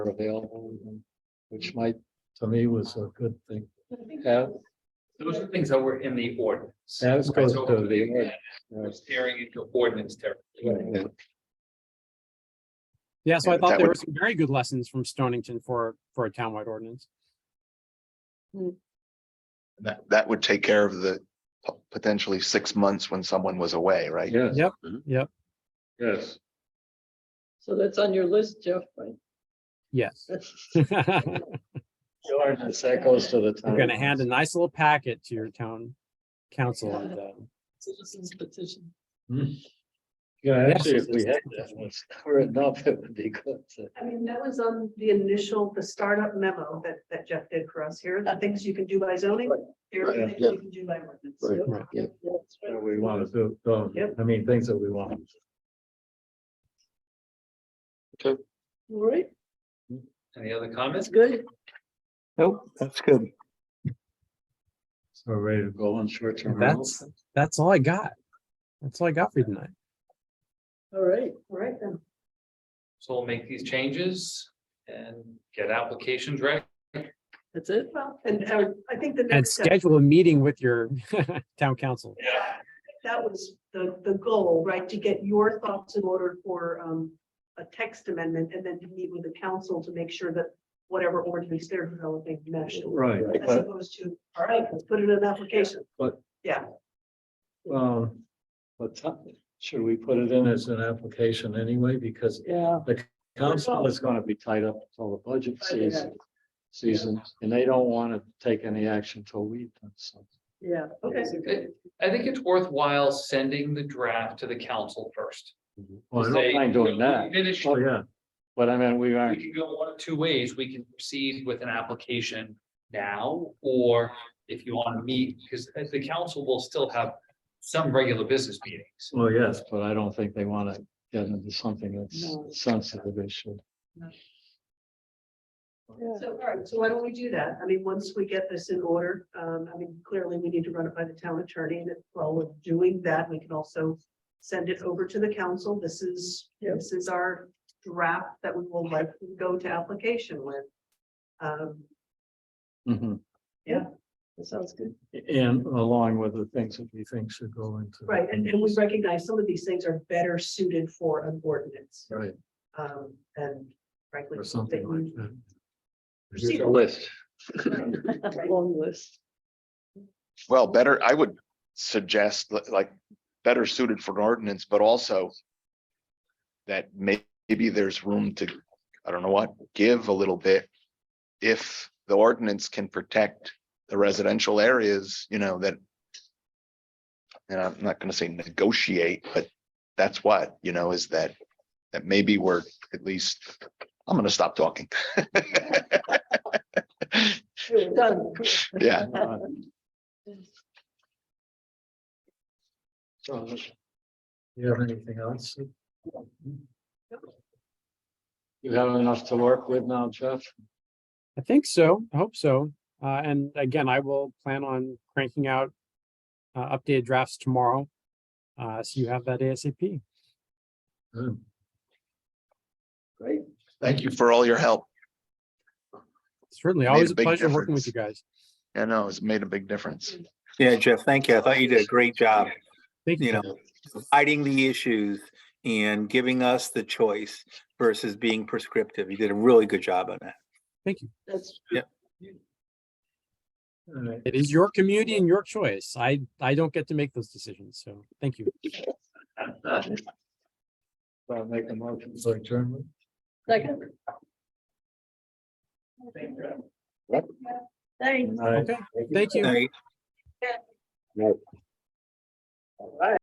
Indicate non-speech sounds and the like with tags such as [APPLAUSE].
available, which might, to me, was a good thing. As, Those are things that were in the ordinance. as opposed to the. We're Staring into ordinance territory. Yeah. Yeah, so Yeah, I but that thought there would- were some very good lessons from Stonington for, for a townwide ordinance. That, that would take care of the po- potentially six months when someone was away, right? Yes. Yep, Mhm. yep. Yes. So that's on your list, Jeff, right? [LAUGHS] Yes. [LAUGHS] The ordinance, that goes to the town. We're gonna hand a nice little packet to your town council and, uh, Citizens petition. Yeah, Yes, actually, if we it's- had that was written up, it would be good. to- I mean, that was on the initial, the startup memo that, that Jeff did for us here, the things you can do by zoning, here are the Right, things you can do by ordinance. Right. Yep, that's right. that We want to do, so, Yep. I mean, things that we want. All right, Any other that's comments? good. So we're ready to go on short term. that's, that's all I got. That's all I got for you tonight. All right. All right then. So we'll make these changes and get applications ready. That's it. Well, and uh, I think the And next step, schedule a meeting with your [LAUGHS] town council. that was the, the goal, right, to get your thoughts in order for um, a text amendment and then to meet with the council to make sure that whatever ordinance they're developing meshed. Right, As but, opposed to, all right, let's put it in an application. um, but t- should we put it in as an application anyway? Because Yeah, Oh, council is gonna be tied up until the budget Budget. season. Season, and they don't want to take any action till we. do something. yeah. Okay, I I think it's worthwhile sending the draft to the council first. Well, I Say, don't mind you doing know, that. we Finish, Oh, yeah. But I mean, we we aren't, can go one of two ways. We can proceed with an application now, or if you want to meet, because the council will still have some regular business meetings. [LAUGHS] well, yes, but I don't think they want to get into something No. that's sensitive issue. So, all right, so why don't we do that? I mean, once we get this in order, um, I mean, clearly we need to run it by the town attorney and if while we're doing that, we can also send it over to the council. This is, Yep. this is our draft that we will let go to application with. Um, Mhm. That sounds good. And along with the things that we think should go into. right, and, and we recognize some of these things are better suited for an ordinance, Right, um, and frankly. or something like that. Here's our list. [LAUGHS] Long list. Well, better, I would suggest li- like better suited for an ordinance, but also that may- maybe there's room to, I don't know what, give a little bit. If the ordinance can protect the residential areas, you know, that and I'm not gonna say negotiate, but that's what, you know, is that that maybe we're at least, I'm gonna stop talking. [LAUGHS] Done. Yeah, So, You have anything else? You have enough to work with now, Jeff? I think so. I hope so. Uh, and again, I will plan on cranking out uh, updated drafts tomorrow. Uh, so you have that ASAP. Good. Great. thank you for all your help. Certainly, Made always a a big pleasure working with difference. you guys. I know it's made a big difference. Yeah, Jeff, thank you. I thought you did a great job, Thank you. you know, fighting the issues and giving us the choice versus being prescriptive. You did a really good job on that. That's, All right. It is your community and your choice. I, I don't get to make those decisions. So thank you. So I'll make a motion for adjournment. second. Thanks. Okay. Thank you. All right.